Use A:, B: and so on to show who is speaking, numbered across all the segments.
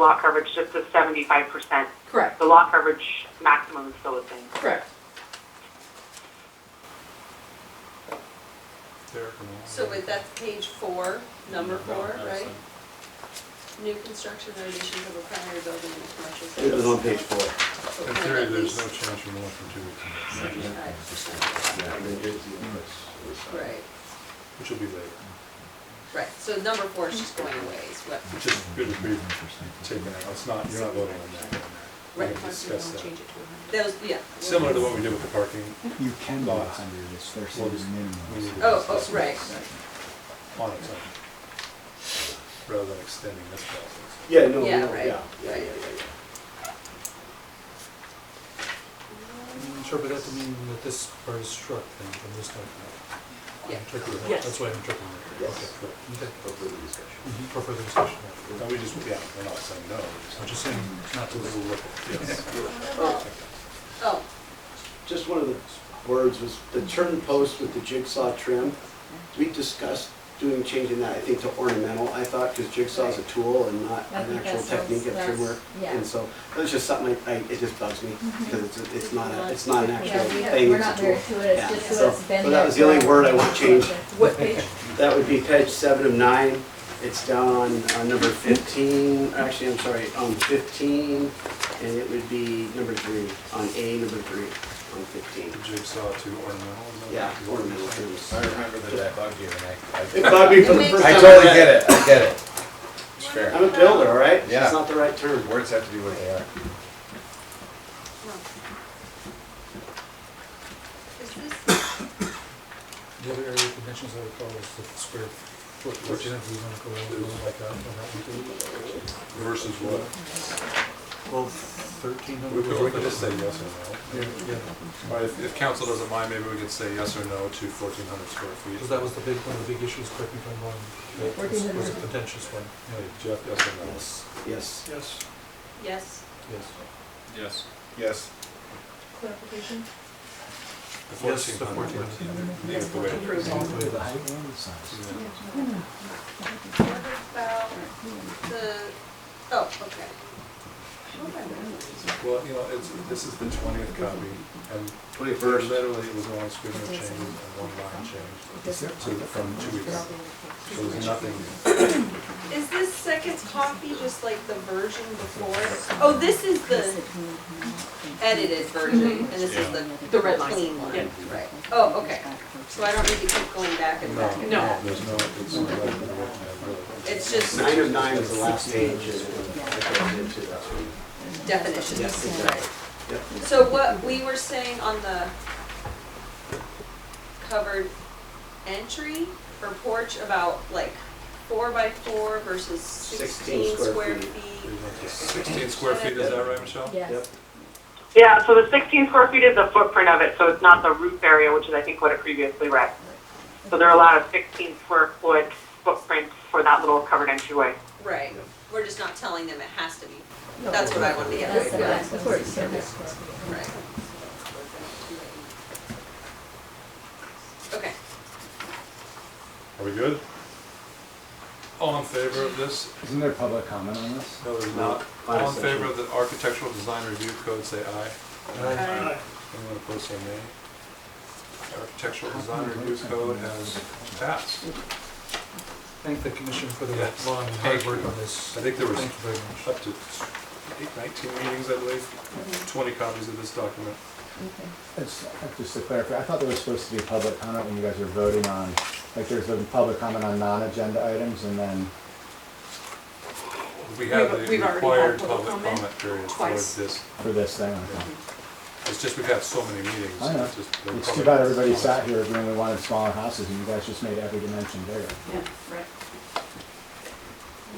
A: lot coverage just to seventy-five percent.
B: Correct,
A: The lot coverage maximum is still the same.
B: correct.
C: So with that, page four, number four, right? New construction or additions of a primary building in a commercial space.
D: It was on page four.
E: In theory, there's no change from one to two,
C: Seventy-five percent, right,
E: which will be later.
C: right, so number four is just going away, is what,
E: It's just good to be taken out. It's not, you're not voting on that. We
C: right,
E: can discuss that.
C: that was, yeah.
E: Similar to what we did with the parking
F: You can go a
E: Lots.
F: hundred, it's their
E: Well,
F: city
E: just-
F: minimum.
E: we need to-
C: Oh, oh, right,
E: on its own, rather than extending this process.
D: Yeah, no, no,
C: Yeah,
D: yeah,
C: right,
D: yeah, yeah, yeah,
C: right.
D: yeah.
E: Interpret that to mean that this part is struck then from this document.
C: yeah,
E: Interpret
A: Yes.
E: that, that's why I'm interpreting it.
D: Yes.
E: Okay, correct. Okay. Mm-hmm.
D: Hopefully the discussion.
E: For further discussion. No, we just, yeah, we're not saying no. I'm just saying not to overlook it.
D: Uh,
C: oh,
D: Just one of the words was the turn post with the jigsaw trim. We discussed doing, changing that, I think, to ornamental, I thought, because jigsaw's a tool and not
G: I
D: an
G: think
D: actual
G: that sounds-
D: technique of trim
G: that's-
D: work.
G: yeah.
D: And so, that's just something, I, I- it just bugs me, because it's, it's not, a it's not an actual
G: Yeah, we have,
D: thing,
G: we're
D: it's a
G: not
D: tool.
G: very fluid,
D: Yeah,
G: it's just
D: so-
G: so it's been.
D: so that
G: there
D: was the only
G: for-
D: word I want changed.
C: what page?
D: That would be page seven of nine. It's down on uh, number 15, actually, I'm sorry, on 15, and it would be number three, on A, number three, on 15.
E: The jigsaw to ornamental. is that
D: Yeah,
E: what you're
D: ornamental
E: saying?
D: terms.
H: I remember that that bugged you, and
D: It
H: I, I-
D: bugged me for the first
H: I
D: time.
H: totally get it, I get it. It's
D: I'm
H: fair.
D: a builder, all right? It's
H: Yeah.
D: just not the right term.
H: Words have to be what they are.
C: No. Is this,
E: The other area of conventions I recall is the square foot, which is going to go over like that on that one too. Versus what?
D: Well,
E: Thirteen hundred. We could just say yes or no. Yeah. Or if, if council doesn't mind, maybe we could say yes or no to fourteen hundred square feet. Because that was the big, one of the big issues, correct me if I'm wrong,
G: that was- was a 1400.
E: contentious one. Yeah, Jeff, yes or no?
D: Yes, yes.
E: Yes.
C: yes,
E: Yes.
H: Yes. Yes.
G: Clarification?
E: The fourteen hundred. Yes, the
F: The
E: fourteen.
F: height and the size.
C: what about the, oh, okay. How am I remembering these?
E: Well, you know, it's, this is the twentieth copy, and
D: 21st.
E: literally it was one scrivener change and one line change.
G: This-
E: So from two weeks,
G: I'll
E: so
G: be-
E: there's nothing,
C: Is this second copy just like the version before it? Oh, this is the edited version, and this is the
B: The red line.
C: clean one,
B: Yeah.
C: right? Oh, okay. So I don't need to keep going back and back
E: no,
C: and
E: no,
C: back.
E: there's no, it's not like we're working on really.
C: It's just
D: Nine of nine is the last page. and I put it into that one.
C: definitions,
D: Yes, exactly.
C: right?
D: Yep.
C: So what we were saying on the covered entry or porch about like four by four versus sixteen square feet.
E: Sixteen square feet, is that right, Michelle?
D: Yep.
G: Yes.
A: Yeah, so the sixteen square feet is the footprint of it, so it's not the roof area, which is I think what it previously read. So they're allowed a sixteen square foot footprint for that little covered entryway.
C: Right, we're just not telling them it has to be. That's what I wanted to get
G: That's the
C: at.
G: last, of course, yeah, that's correct.
C: Right. Okay,
E: Are we good? All in favor of this?
F: Isn't there public comment on this?
E: No, there's
D: No,
E: not.
D: final
E: All in favor
D: section.
E: of the architectural design review code, say aye.
C: Aye.
E: Anyone opposed, say nay. Architectural design review code has passed.
I: Thank the commission for the
E: Yes.
I: long and hard work on this.
E: I think there was-
I: Thank you very much.
E: Up to eight, 19 meetings, I
B: Mm-hmm.
E: believe, 20 copies of this document.
G: Okay.
F: It's, uh, just to clarify, I thought there was supposed to be public comment when you guys were voting on, like there's a public comment on non-agenda items and then,
E: We have
B: We've-
E: the
B: we've already had
E: required
B: public
E: public
B: comment
E: comment period for
B: twice.
E: this.
F: for this thing. okay.
E: It's just we've had so many meetings.
F: I know.
E: it's just the
F: It's too
E: public-
F: bad everybody sat here agreeing we wanted smaller houses and you guys just made every dimension bigger.
B: Yeah, right.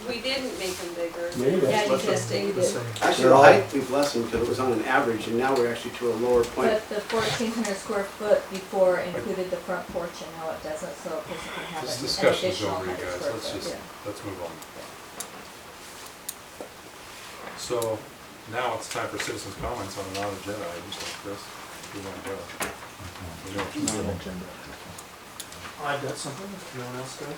C: we didn't make them bigger.
F: Yeah, you
G: Yeah,
F: guys,
G: you just
C: Existing.
G: stated
I: The same.
G: it.
D: Actually, the height, we've lessened because it was on an average, and now we're actually to a lower point.
G: But the fourteen hundred square foot before included the front porch and now it doesn't, so a person can have
E: This
G: an- an
E: discussion's
G: additional
E: over, you
G: hundred
E: guys,
G: square
E: let's
G: foot.
E: just,
G: yeah.
E: let's move on. So now it's time for citizens' comments on non-agenda items like this. We want to go. We know what you're doing.
F: non-agenda.
J: I've got something, if no one else does.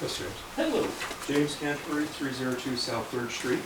E: Yes, James.
J: Hello, James Canterbury, 302 South Third Street.